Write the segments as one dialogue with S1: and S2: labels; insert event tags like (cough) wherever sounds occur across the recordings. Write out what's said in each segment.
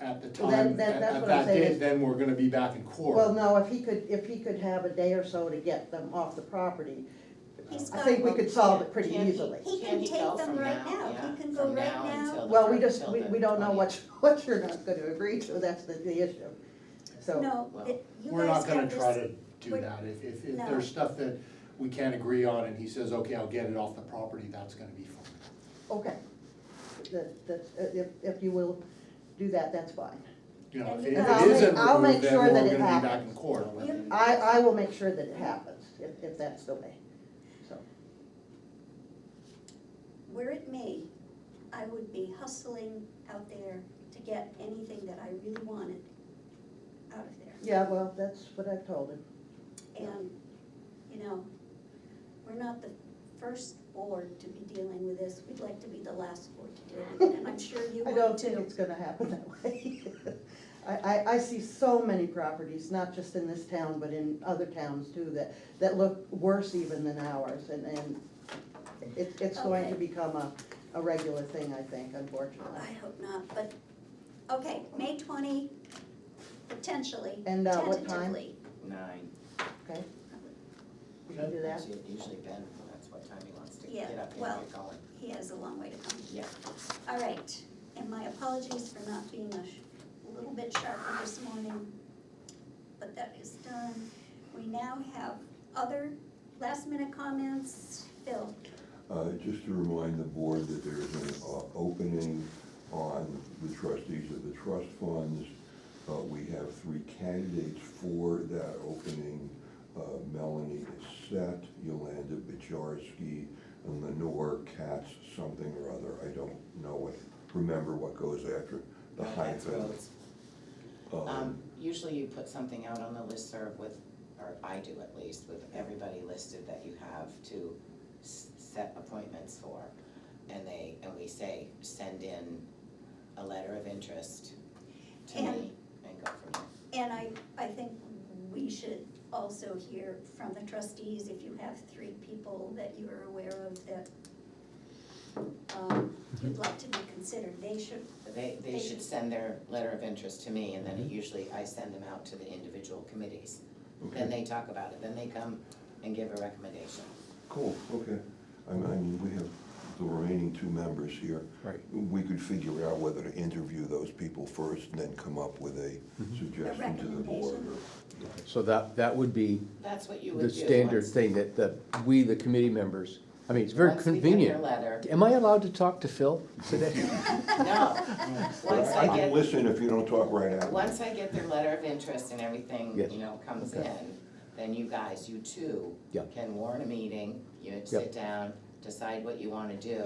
S1: at the
S2: Well, that-
S1: time,
S2: that-
S1: at
S2: that's
S1: at
S2: what I'm
S1: that
S2: saying
S1: date,
S2: is-
S1: then we're gonna be back in court.
S2: Well, no, if he could, if he could have a day or so to get them off the property,
S3: He's
S2: I
S3: got-
S2: think we could solve it pretty
S4: Can he-
S2: easily.
S3: He
S4: Can
S3: can
S4: he
S3: take
S4: go
S3: them
S4: from
S3: right
S4: now?
S3: now,
S4: Yeah,
S3: he can go
S4: from
S3: right
S4: now until
S3: now.
S2: Well, we just,
S4: Till
S2: we,
S4: the
S2: we don't know
S4: 20th.
S2: what, (laughs) what you're not gonna agree to, that's the, the issue, so.
S3: No,
S4: Well,
S3: it- you
S1: We're
S3: guys
S1: not gonna
S3: have
S1: try
S3: this,
S1: to do
S3: we're-
S1: that, if, if, if
S3: No.
S1: there's stuff that we can't agree on and he says, okay, I'll get it off the property, that's gonna be fine.
S2: Okay, that, that, if, if you will do that, that's fine.
S1: You know,
S3: And
S1: if
S3: you
S1: it
S3: guys- I'll make-
S1: isn't
S2: I'll make
S1: removed, then
S2: sure
S1: we're
S2: that
S1: gonna
S2: it
S1: be back
S2: happens.
S1: in court.
S3: You-
S2: I, I will make sure that it happens, if, if that's the way, so.
S3: were it me, I would be hustling out there to get anything that I really wanted out of there.
S2: Yeah, well, that's what I've told him.
S3: And, you know, we're not the first board to be dealing with this, we'd like to be the last board to deal with it, and I'm sure you
S2: (laughs) I
S3: would
S2: don't think
S3: too.
S2: it's gonna happen that (laughs) way. I, I, I see so many properties, not just in this town, but in other towns too, that, that look worse even than ours, and, and it, it's going to
S3: Okay.
S2: become a, a regular thing, I think, unfortunately.
S3: I hope not, but, okay, May twenty, potentially,
S2: And, uh, what time?
S3: tentatively.
S4: Nine.
S2: Okay, we can do that.
S4: Usually- Usually Ben, that's what time he wants to
S3: Yeah,
S4: get up and
S3: well-
S4: get going.
S3: He has a long way to come.
S4: Yeah.
S3: All right, and my apologies for not being a sh- a little bit sharper this morning, but that is done. We now have other last minute comments. Phil,
S5: Uh, Just to remind the board that there is an uh, opening on the trustees of the trust funds. Uh, We have three candidates for that opening. Uh, Melanie Set, Yolanda Bajarski, and Lenore Katz, something or other. I don't know what, remember what goes after the
S4: That's
S5: hyphen.
S4: roads.
S5: Um,
S4: Um, usually you put something out on the listserv with, or I do at least, with everybody listed that you have to s- set appointments for. And they, and we say, send in a letter of interest to me and go from there.
S3: and I, I think we should also hear from the trustees if you have three people that you are aware of that um, you'd like to be considered, they should,
S4: They,
S3: They
S4: they
S3: should-
S4: should send their letter of interest to me, and then it usually, I send them out to the individual committees. Then
S5: Okay,
S4: they talk about it, then they come and give a recommendation.
S5: cool, okay. I mean- I mean, we have the remaining two members here.
S6: Right.
S5: we could figure out whether to interview those people first and then come up with a suggestion to the board.
S3: recommendation.
S5: or-
S6: So that, that would be
S4: That's what you would do.
S6: the standard
S4: once-
S6: thing that, that we, the committee members, I mean, it's very
S4: once we get their
S6: convenient. (laughs)
S4: letter.
S6: Am I allowed to talk to Phil today?
S4: No, once
S5: I
S4: I
S5: can
S4: get,
S5: listen if you don't talk right out.
S4: once I get their letter of interest and everything,
S6: Yes.
S4: you know, comes
S6: Okay.
S4: in, then you guys, you two
S6: Yeah.
S4: can warn a meeting, you sit down, decide what you wanna do,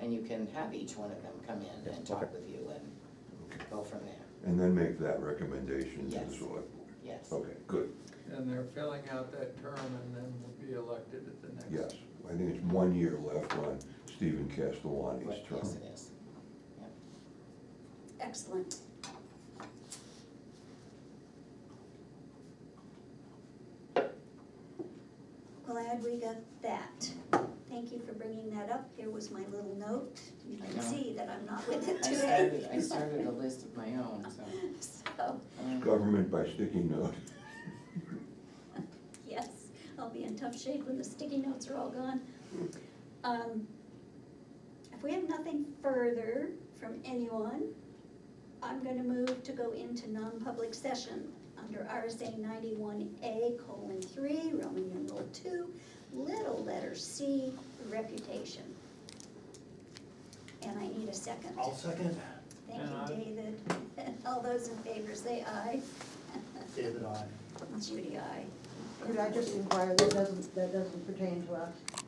S4: and you can have each one of them come in and talk
S6: Mm-hmm. okay.
S4: with you and go from there,
S5: And then make that recommendation to the
S4: Yes.
S5: select board.
S4: yes.
S5: Okay, good,
S7: And they're filling out that term and then will be elected at the next.
S5: yes. I think it's one year left on Stephen
S4: What-
S5: Castellani's
S4: Yes,
S5: term.
S4: it is.
S3: excellent. Glad we got that. Thank you for bringing that up. Here was my little note. You
S4: I
S3: can
S4: know.
S3: see that I'm not with it
S4: I
S3: today.
S4: started, I started a list of my own, so.
S3: (laughs) So,
S4: um,
S5: Government by sticky note.
S3: yes, I'll be in tough shape when the sticky notes are all gone. Um, If we have nothing further from anyone, I'm gonna move to go into non-public session under RSA ninety-one A colon three, Roman numeral two, little letter C, reputation. And I need a 2nd
S1: second.
S3: Thank
S7: And I-
S3: you, David. (laughs) All those in favor say aye.
S1: David, I.
S3: Judy, aye.
S2: Could I just inquire, that doesn't, that doesn't pertain to us?